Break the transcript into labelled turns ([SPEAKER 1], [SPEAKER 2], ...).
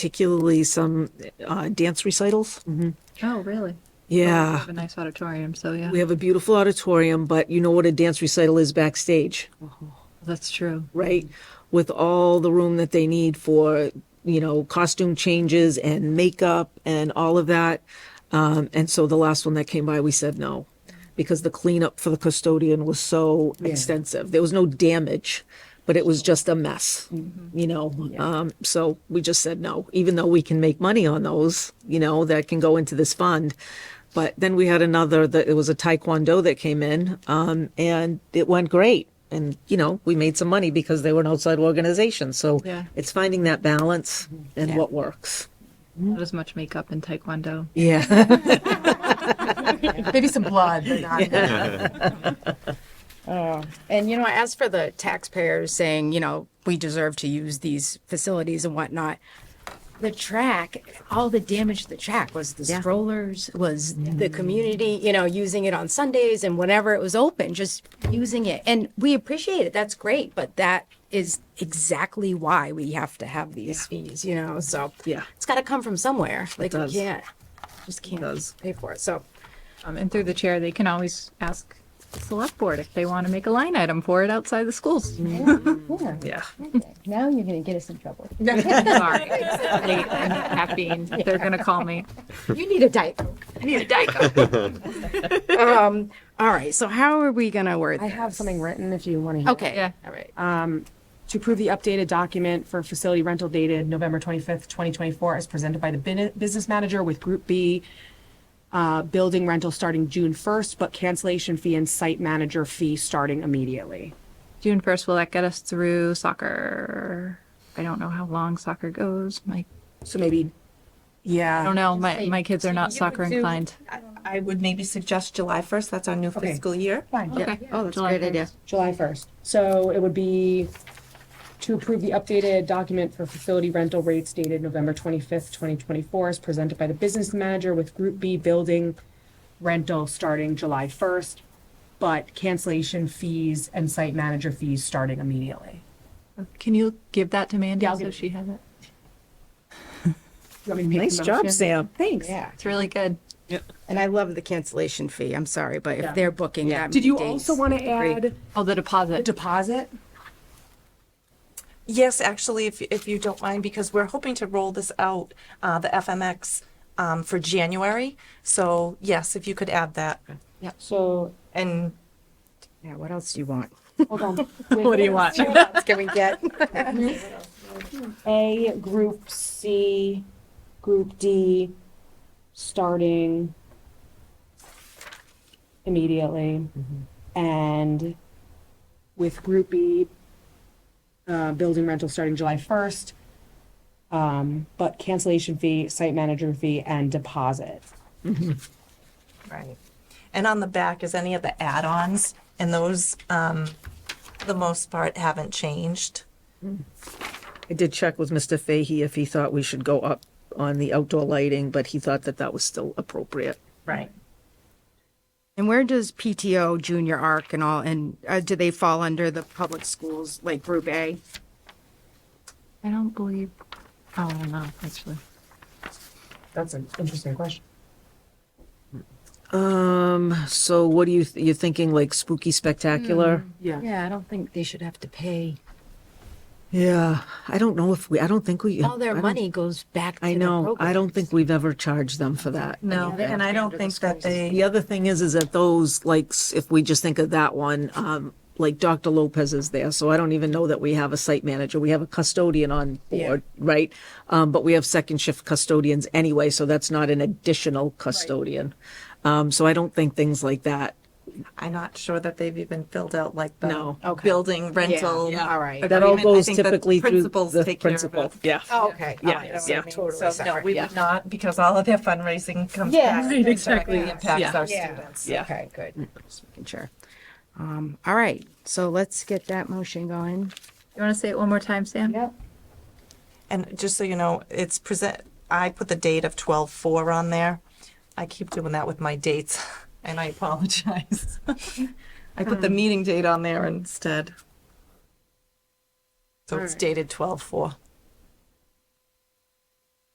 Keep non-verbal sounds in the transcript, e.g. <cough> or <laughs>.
[SPEAKER 1] particularly some uh, dance recitals.
[SPEAKER 2] Oh, really? We
[SPEAKER 1] Yeah,
[SPEAKER 2] have a nice auditorium, so yeah,
[SPEAKER 1] we have a beautiful auditorium, but you know what a dance recital is backstage,
[SPEAKER 2] that's true.
[SPEAKER 1] right? With all the room that they need for, you know, costume changes and makeup and all of that. Um, and so the last one that came by, we said no because the cleanup for the custodian was so extensive. There was no damage, but it was just a mess, you know? Um, so we just said no, even though we can make money on those, you know, that can go into this fund. But then we had another that it was a taekwondo that came in, um, and it went great. And you know, we made some money because they were an outside organization. So
[SPEAKER 2] Yeah.
[SPEAKER 1] it's finding that balance and what works.
[SPEAKER 2] Not as much makeup in Taekwondo.
[SPEAKER 1] Yeah.
[SPEAKER 3] Maybe some blood, but not.
[SPEAKER 4] <laughs> Oh. And, you know, as for the taxpayers saying, you know, we deserve to use these facilities and whatnot, the track, all the damage to the track was the strollers, was the
[SPEAKER 3] Mm.
[SPEAKER 4] community, you know, using it on Sundays and whenever it was open, just using it. And we appreciate it. That's great. But that is exactly why we have to have these fees, you know? So
[SPEAKER 1] Yeah.
[SPEAKER 4] it's got to come from somewhere. Like, we
[SPEAKER 1] does.
[SPEAKER 4] can't, just can't
[SPEAKER 1] does.
[SPEAKER 4] pay for it. So,
[SPEAKER 2] Um, and through the chair, they can always ask the select board if they want to make a line item for it outside the schools.
[SPEAKER 1] Yeah.
[SPEAKER 5] Now you're going to get us in trouble.
[SPEAKER 2] Sorry. It's late and Caffeine, they're gonna call me.
[SPEAKER 4] You need a Diet Coke. I need a Diet Coke. <laughs> um, all right, so how are we going to word
[SPEAKER 6] I
[SPEAKER 4] this?
[SPEAKER 6] have something written if you want to hear.
[SPEAKER 4] Okay. Um,
[SPEAKER 2] Yeah.
[SPEAKER 4] All right.
[SPEAKER 6] To approve the updated document for facility rental dated November 25th, 2024, as presented by the bin- business manager with Group B, uh, building rental starting June 1st, but cancellation fee and site manager fee starting immediately.
[SPEAKER 2] June first, will that get us through soccer? I don't know how long soccer goes. My,
[SPEAKER 6] So maybe,
[SPEAKER 2] I don't
[SPEAKER 6] yeah,
[SPEAKER 2] know. My, my kids are not soccer inclined.
[SPEAKER 7] I would maybe suggest July 1st. That's our new fiscal year.
[SPEAKER 2] Okay. Oh, that's a great idea.
[SPEAKER 6] July 1st. So it would be to approve the updated document for facility rental rates dated November 25th, 2024, as presented by the business manager with Group B building rental starting July 1st, but cancellation fees and site manager fees starting immediately.
[SPEAKER 2] Can you give that to Mandy
[SPEAKER 6] Yeah, I'll
[SPEAKER 2] so
[SPEAKER 6] give it-
[SPEAKER 2] she has it?
[SPEAKER 6] You want me to make the
[SPEAKER 1] Nice
[SPEAKER 6] motion?
[SPEAKER 1] job, Sam.
[SPEAKER 6] Thanks.
[SPEAKER 4] Yeah.
[SPEAKER 2] It's really good.
[SPEAKER 4] And I love the cancellation fee. I'm sorry, but if they're booking that
[SPEAKER 6] Did
[SPEAKER 4] many
[SPEAKER 6] you
[SPEAKER 4] days-
[SPEAKER 6] also want to add
[SPEAKER 2] Oh, the
[SPEAKER 6] a
[SPEAKER 2] deposit.
[SPEAKER 6] deposit?
[SPEAKER 7] Yes, actually, if, if you don't mind, because we're hoping to roll this out, uh, the FMX, um, for January. So yes, if you could add that.
[SPEAKER 6] So,
[SPEAKER 7] And
[SPEAKER 4] Yeah, what else do you want?
[SPEAKER 6] hold <laughs> on.
[SPEAKER 2] What do you want?
[SPEAKER 4] What else can we get?
[SPEAKER 6] A, Group C, Group D, starting immediately. And with Group B, uh, building rental starting July 1st, um, but cancellation fee, site manager fee, and deposit.
[SPEAKER 7] Right. And on the back is any of the add-ons, and those, um, for the most part, haven't changed.
[SPEAKER 1] I did check with Mr. Fahey if he thought we should go up on the outdoor lighting, but he thought that that was still appropriate.
[SPEAKER 7] Right.
[SPEAKER 4] <laughs> And where does PTO, Junior Arc, and all, and uh, do they fall under the public schools like Group A?
[SPEAKER 2] I don't believe, oh, I don't know, actually.
[SPEAKER 6] That's an interesting question.
[SPEAKER 1] Um, so what do you, th- you're thinking like spooky spectacular?
[SPEAKER 6] Yeah.
[SPEAKER 4] Yeah, I don't think they should have to pay.
[SPEAKER 1] Yeah, I don't know if we, I don't think we.
[SPEAKER 4] All
[SPEAKER 1] I
[SPEAKER 4] their
[SPEAKER 1] don't-
[SPEAKER 4] money goes back to
[SPEAKER 1] I
[SPEAKER 4] the
[SPEAKER 1] know, I
[SPEAKER 4] program.
[SPEAKER 1] don't think we've ever charged them for that.
[SPEAKER 7] No, and I don't think that they,
[SPEAKER 1] The other thing is, is that those, like, s- if we just think of that one, um, like Dr. Lopez is there, so I don't even know that we have a site manager. We have a custodian on board, right? Um, but we have second shift custodians anyway, so that's not an additional custodian. Um, so I don't think things like that.
[SPEAKER 7] I'm not sure that they've even filled out like the
[SPEAKER 1] No.
[SPEAKER 7] building rental.
[SPEAKER 4] All right.
[SPEAKER 1] That all
[SPEAKER 7] agreement. I
[SPEAKER 1] goes
[SPEAKER 7] think the
[SPEAKER 1] typically through
[SPEAKER 7] principals
[SPEAKER 1] the
[SPEAKER 7] take care of
[SPEAKER 1] principal.
[SPEAKER 7] it.
[SPEAKER 1] Yeah.
[SPEAKER 4] Oh, Okay. All right,
[SPEAKER 1] Yeah,
[SPEAKER 4] so I
[SPEAKER 1] yeah.
[SPEAKER 4] mean, Totally
[SPEAKER 7] So no,
[SPEAKER 4] separate.
[SPEAKER 7] we would not, because all of their fundraising comes
[SPEAKER 4] Yeah,
[SPEAKER 7] back.
[SPEAKER 4] right,
[SPEAKER 7] and
[SPEAKER 4] exactly.
[SPEAKER 7] directly Impacts
[SPEAKER 1] Yeah.
[SPEAKER 7] our
[SPEAKER 4] Yeah.
[SPEAKER 7] students.
[SPEAKER 1] Yeah.
[SPEAKER 4] Okay, good. Just making sure. Um, all right, so let's get that motion going.
[SPEAKER 2] You want to say it one more time, Sam? Yeah.
[SPEAKER 7] And just so you know, it's present, I put the date of twelve four on there. I keep doing that with my dates <laughs> and I apologize. <laughs> I put the meeting date on there instead. So it's dated twelve four.